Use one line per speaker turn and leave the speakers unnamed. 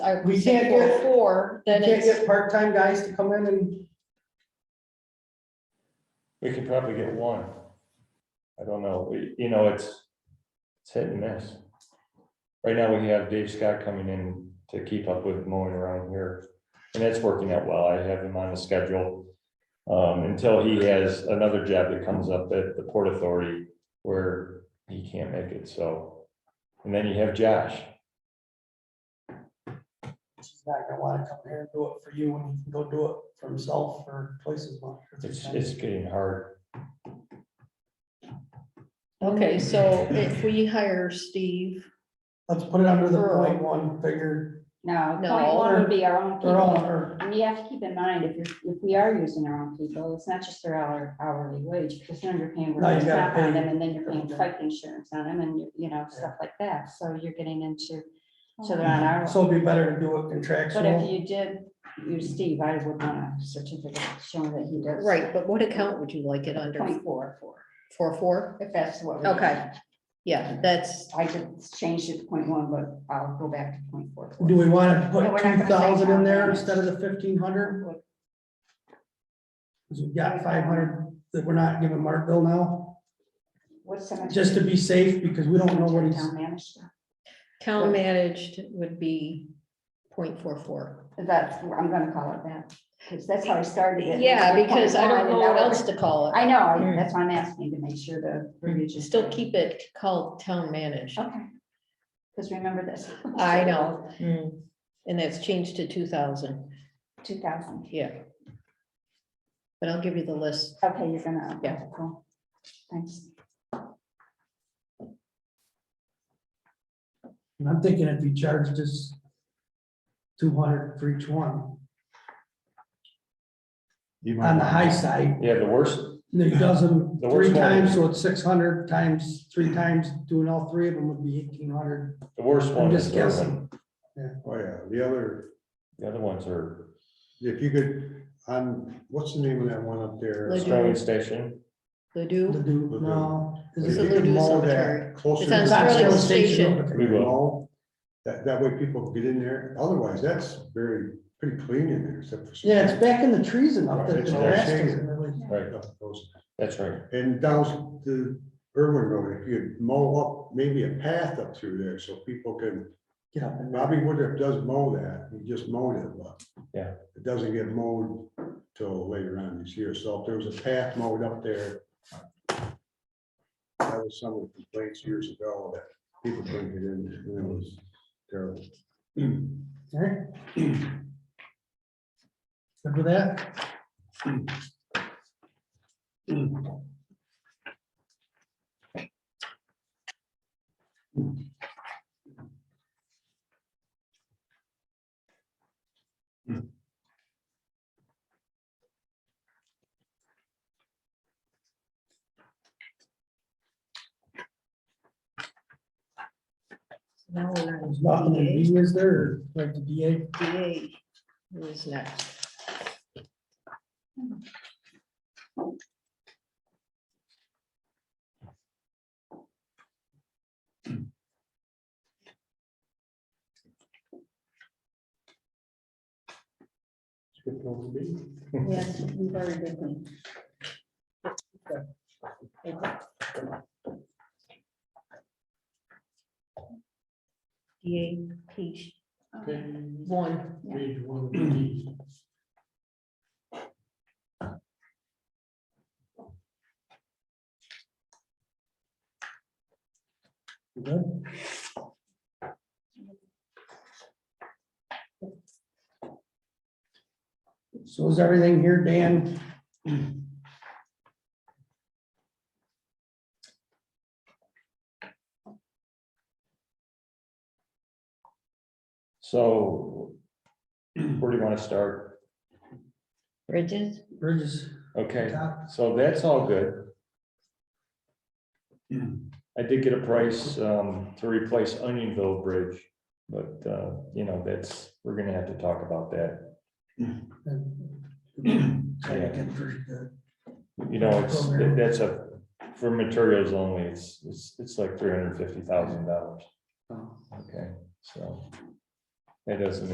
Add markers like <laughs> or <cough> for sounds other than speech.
our
We can't
four,
get-
four,
You
then
can't
it's,
get part-time guys to come in and,
We could probably get one. I don't know, We- you know, it's, it's hit and miss. Right now, we have Dave Scott coming in to keep up with mowing around here, and that's working out well, I have him on the schedule. Um, until he has another job that comes up at the Port Authority where he can't make it, so. And then you have Josh,
He's not gonna wanna come here and do it for you when he can go do it for himself for twice as much. or three
it's,
times.
it's getting hard,
okay, so if we hire Steve,
Let's put it under the
Referral.
point one figure,
No,
No.
point one would be our own
they're all
people.
under,
And you have to keep in mind, if, you're- if we are using our own people, it's not just their hour- hourly wage, because then you're paying
No, you
workers'
gotta
comp on
pay-
them, and then you're paying life insurance on them, and, you know, stuff like that, so you're getting into, so they're on our.
Mm-hmm. so it'd be better to do it
But if
contractual.
you did use Steve, I would want a certificate showing that he does.
right, but what account would you like it under?
Point four four,
Four, four?
if that's what. we-
Okay. Yeah, that's,
I could change it to point one, but I'll go back to point four.
Do we wanna
But
put
we're not gonna
two thousand
say
in
how
there
much.
instead of the fifteen hundred? Cause we've got five hundred that we're not giving Mark Bill now,
What's so much?
just to be safe, because we don't know what he's,
Town manager.
town managed would be point four, four.
That's, I'm gonna call it that, because that's how I started it.
Yeah,
Like,
because I don't know what
I-
else to call it.
I know, I- that's why I'm asking to make sure the verbiage is.
Still keep it called town managed.
Okay. Because remember this.
I know. And that's changed to two thousand,
<laughs> Two thousand,
yeah. But I'll give you the list.
okay, you're gonna. okay,
Yeah.
cool. Thanks.
and I'm thinking if you charge just two hundred for each one,
You might
on the
want-
high side,
yeah, the worst,
And It does them
The
three
worst one
times,
is-
so it's six hundred times, three times, doing all three of them would be eighteen hundred.
the worst
I'm
one is
just
Irvin,
guessing.
Oh, yeah, the other,
the other ones are
if you could, on, what's the name of that one up there?
Ledu-
Australian Station.
The
Ledoux,
do, no.
If
It's a
you
little
could
Ledoux
mow that
cemetery.
Closer.
It's
to
on
the
Sterling
actual
Station.
if you
We will.
mow, That, that way people can get in there, otherwise that's very, pretty clean in there except for. some-
Yeah, it's back in the trees and up there.
It's
the
Oh, all
grass
shaded.
doesn't really-
Right,
Those-
that's right.
And down the Irwin Road, if you mow up, maybe a path up through there so people can,
Get up and.
Bobby Woodruff does mow that, he just mowed it, but.
Yeah.
It doesn't get mowed till later on this year, so if there was a path mowed up there. That was some of the complaints years ago that people couldn't get in, and it was terrible. <clears throat>
Alright. Good with that?
Now we're on
There's nothing in
DA.
D, is there, like the DA?
DA is next. Yes, we've already did them. DA page one.
Good. So is everything here, Dan?
So where do you want to start?
Bridges?
Bridges?
Okay,
top?
so that's all good. I did get a price um, to replace Onionville Bridge, but, uh, you know, that's, we're gonna have to talk about that.
Try to get first, uh,
You know, it's, that's a, for materials only, it's, it's, it's like three hundred and fifty thousand dollars.
Oh.
Okay, so that doesn't